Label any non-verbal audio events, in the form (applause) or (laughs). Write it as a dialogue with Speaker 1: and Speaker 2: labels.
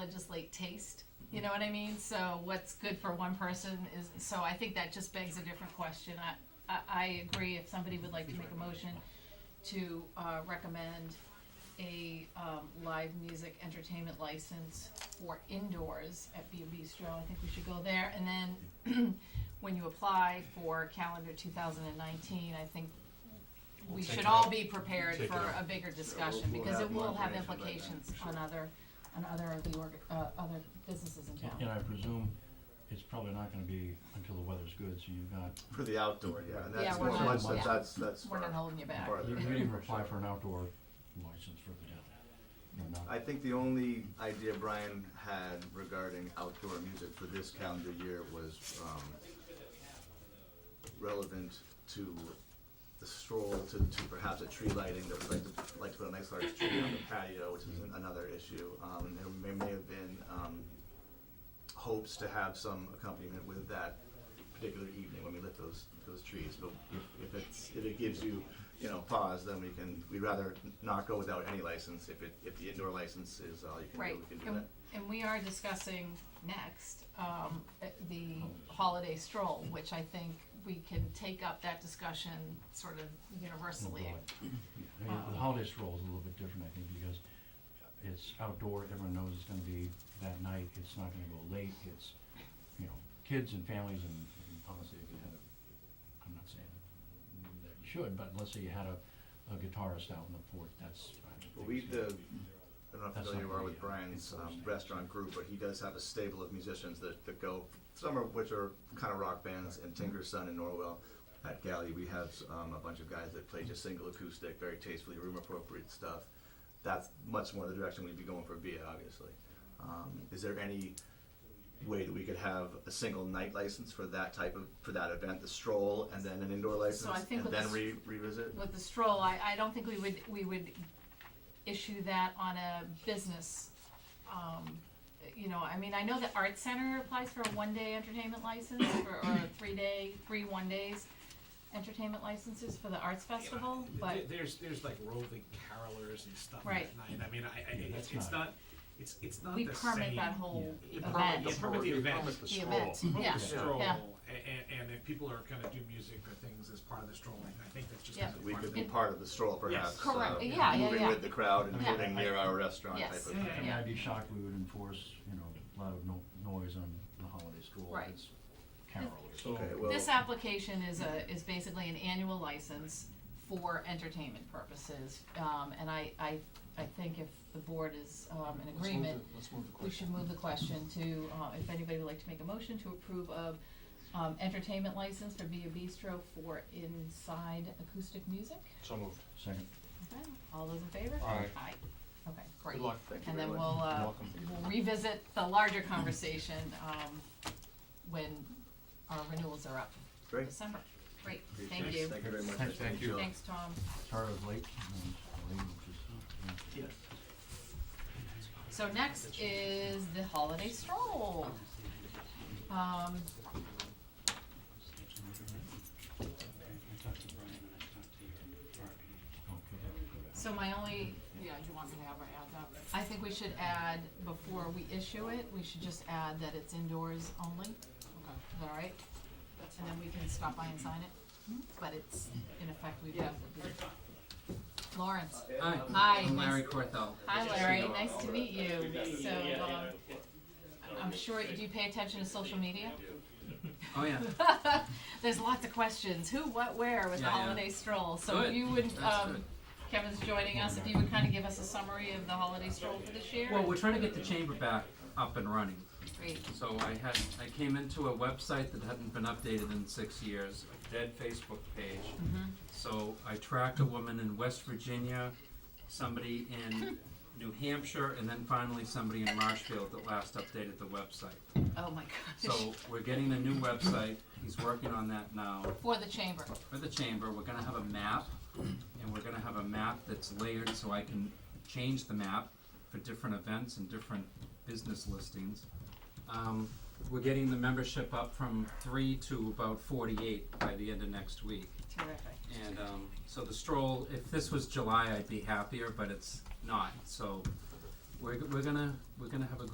Speaker 1: legislate taste. You know what I mean? So what's good for one person is, so I think that just begs a different question. I, I, I agree if somebody would like to make a motion to, uh, recommend a, um, live music entertainment license for indoors at B and Bistro, I think we should go there. And then (clears throat) when you apply for calendar two thousand and nineteen, I think we
Speaker 2: We'll take
Speaker 1: should
Speaker 2: it
Speaker 1: all
Speaker 2: up.
Speaker 1: be prepared
Speaker 2: Take it
Speaker 1: for
Speaker 2: up.
Speaker 1: a bigger discussion,
Speaker 3: we'll
Speaker 1: because
Speaker 3: have
Speaker 1: it
Speaker 3: more
Speaker 1: will have
Speaker 3: information by then,
Speaker 1: implications
Speaker 3: for
Speaker 1: on
Speaker 3: sure.
Speaker 1: other, on other of the org, uh, other businesses in town.
Speaker 4: And I presume it's probably not gonna be until the weather's good, so you've got,
Speaker 3: For the outdoor, yeah, and
Speaker 1: Yeah,
Speaker 3: that's
Speaker 1: we're
Speaker 3: more,
Speaker 4: not-
Speaker 3: much,
Speaker 4: yeah.
Speaker 3: that's, that's.
Speaker 1: We're not
Speaker 3: for-
Speaker 1: holding you back.
Speaker 3: for the-
Speaker 4: you can even apply for an outdoor license for the, you know,
Speaker 3: I
Speaker 4: not,
Speaker 3: think the only idea Brian had regarding outdoor music for this calendar year was, um, relevant to the stroll to, to perhaps a tree lighting, that would like to, like to put a nice large tree on the patio, which is an- another issue. Um, there may, may have been, um, hopes to have some accompaniment with that particular evening when we lit those, those trees, but if it's, if it gives you, you know, pause, then we can, we'd rather not go without any license, if it, if the indoor license is all you can
Speaker 1: Right,
Speaker 3: do, we can do
Speaker 1: and,
Speaker 3: that.
Speaker 1: and we are discussing next, um, uh, the holiday stroll, which I think we can take up that discussion sort of universally.
Speaker 4: Yeah,
Speaker 3: Oh.
Speaker 4: the holiday stroll is a little bit different, I think, because it's outdoor, everyone knows it's gonna be that night, it's not gonna go late, it's, you know, kids and families and and honestly, if you had a, I'm not saying that you should, but let's say you had a, a guitarist out on the porch, that's, I
Speaker 3: Well,
Speaker 4: don't think
Speaker 3: we,
Speaker 4: it's
Speaker 3: the, I
Speaker 4: gonna be-
Speaker 3: don't know
Speaker 4: That's
Speaker 3: if familiar you
Speaker 4: not
Speaker 3: are
Speaker 4: really,
Speaker 3: with
Speaker 4: uh,
Speaker 3: Brian's um,
Speaker 4: enforced.
Speaker 3: restaurant group, but he does have a stable of musicians that, that go, some of which are kind of rock bands, and Tinker's Son in Norwell. At Galley, we have um, a bunch of guys that play just single acoustic, very tastefully room appropriate stuff. That's much more the direction we'd be going for beer, obviously. Um, is there any way that we could have a single night license for that type of, for that event, the stroll, and then an indoor license?
Speaker 1: I think with
Speaker 3: And then
Speaker 1: the
Speaker 3: re- revisit?
Speaker 1: With the stroll, I, I don't think we would, we would issue that on a business, um, you know, I mean, I know the art center applies for a one-day entertainment license, or, or a three-day, three one-days entertainment licenses for the arts festival, but.
Speaker 5: There- There's, there's like roving carolers and stuff
Speaker 1: Right.
Speaker 5: at night, I mean, I, I,
Speaker 4: Yeah,
Speaker 5: it's,
Speaker 4: that's
Speaker 5: it's
Speaker 4: not-
Speaker 5: not, it's, it's not
Speaker 1: We
Speaker 5: the same.
Speaker 1: permit that whole
Speaker 5: You permit
Speaker 1: event,
Speaker 5: the- permit the event.
Speaker 2: Permit (laughs) the
Speaker 1: the
Speaker 2: stroll.
Speaker 1: event, yeah,
Speaker 5: The stroll,
Speaker 1: yeah.
Speaker 5: and, and if people are gonna do music or things as part of the stroll, I think that's just
Speaker 1: Yeah.
Speaker 5: kind of
Speaker 3: We
Speaker 5: part
Speaker 3: could
Speaker 5: of
Speaker 3: be
Speaker 5: it.
Speaker 3: part of the stroll perhaps.
Speaker 5: Yes.
Speaker 1: Correct.
Speaker 3: uh,
Speaker 1: Yeah, yeah,
Speaker 3: Moving
Speaker 1: yeah.
Speaker 3: with the crowd and
Speaker 1: Yeah.
Speaker 3: moving near our restaurant type
Speaker 1: Yes.
Speaker 3: of
Speaker 5: Yeah,
Speaker 3: thing.
Speaker 4: I mean,
Speaker 1: Yeah.
Speaker 4: I'd be shocked we would enforce, you know, loud no- noise on the holiday stroll,
Speaker 1: Right.
Speaker 4: if it's carol or
Speaker 2: So-
Speaker 3: Okay, well,
Speaker 1: This application is a, is basically an annual license for entertainment purposes, um, and I, I, I think if the board is, um, in
Speaker 2: Let's move
Speaker 1: agreement,
Speaker 2: the- Let's move the
Speaker 1: we should
Speaker 2: question.
Speaker 1: move the question to, uh, if anybody would like to make a motion to approve of, um, entertainment license for Via Bistro for inside acoustic music.
Speaker 2: So moved.
Speaker 4: second.
Speaker 1: Okay, all those in favor?
Speaker 2: Aye.
Speaker 1: Aye, okay, great.
Speaker 3: good luck, thank you
Speaker 1: And then
Speaker 3: very much.
Speaker 1: we'll, uh,
Speaker 2: Welcome.
Speaker 1: we'll revisit the larger conversation, um, when our renewals are up in
Speaker 3: Great,
Speaker 1: December. Great,
Speaker 3: appreciate
Speaker 1: thank
Speaker 3: it.
Speaker 1: you.
Speaker 3: Thank you very much.
Speaker 4: Thank
Speaker 3: Thank
Speaker 2: you.
Speaker 1: Thanks, Tom.
Speaker 4: Sorry I was late, and late, which is, yeah.
Speaker 1: So next is the holiday stroll. Um, so my only, yeah, do you want me to have her add that? I think we should add, before we issue it, we should just add that it's indoors only. Okay. Is that all right? And then we can stop by and sign it, but it's, in effect, we have to be. Lawrence,
Speaker 6: Hi.
Speaker 1: Hi,
Speaker 6: I'm
Speaker 1: nice-
Speaker 6: Larry Cortho.
Speaker 1: Hi Larry, nice to meet you. So, um, I'm sure, do you pay attention to social media?
Speaker 6: Oh yeah.
Speaker 1: (laughs) There's lots of questions, who, what, where with the
Speaker 6: Yeah, yeah.
Speaker 1: holiday stroll, so if
Speaker 6: Good.
Speaker 1: you would,
Speaker 6: That's
Speaker 1: um, Kevin's joining us, if you would kinda give us a summary of the holiday stroll for this year?
Speaker 6: Well, we're trying to get the chamber back up and running.
Speaker 1: Great,
Speaker 6: So I had I came into a website that hadn't been updated in six years, a dead Facebook page. So I tracked a woman in West Virginia, somebody in New Hampshire, and then finally somebody in Marshfield that last updated the website.
Speaker 1: oh my gosh,
Speaker 6: So we're getting a new website. He's working on that now.
Speaker 1: for the chamber,
Speaker 6: for the chamber, we're gonna have a map, and we're gonna have a map that's layered so I can change the map for different events and different business listings. Um, we're getting the membership up from three to about forty-eight by the end of next week.
Speaker 1: terrific.
Speaker 6: And, um, so the stroll, if this was July, I'd be happier, but it's not, so we're, we're gonna, we're gonna have a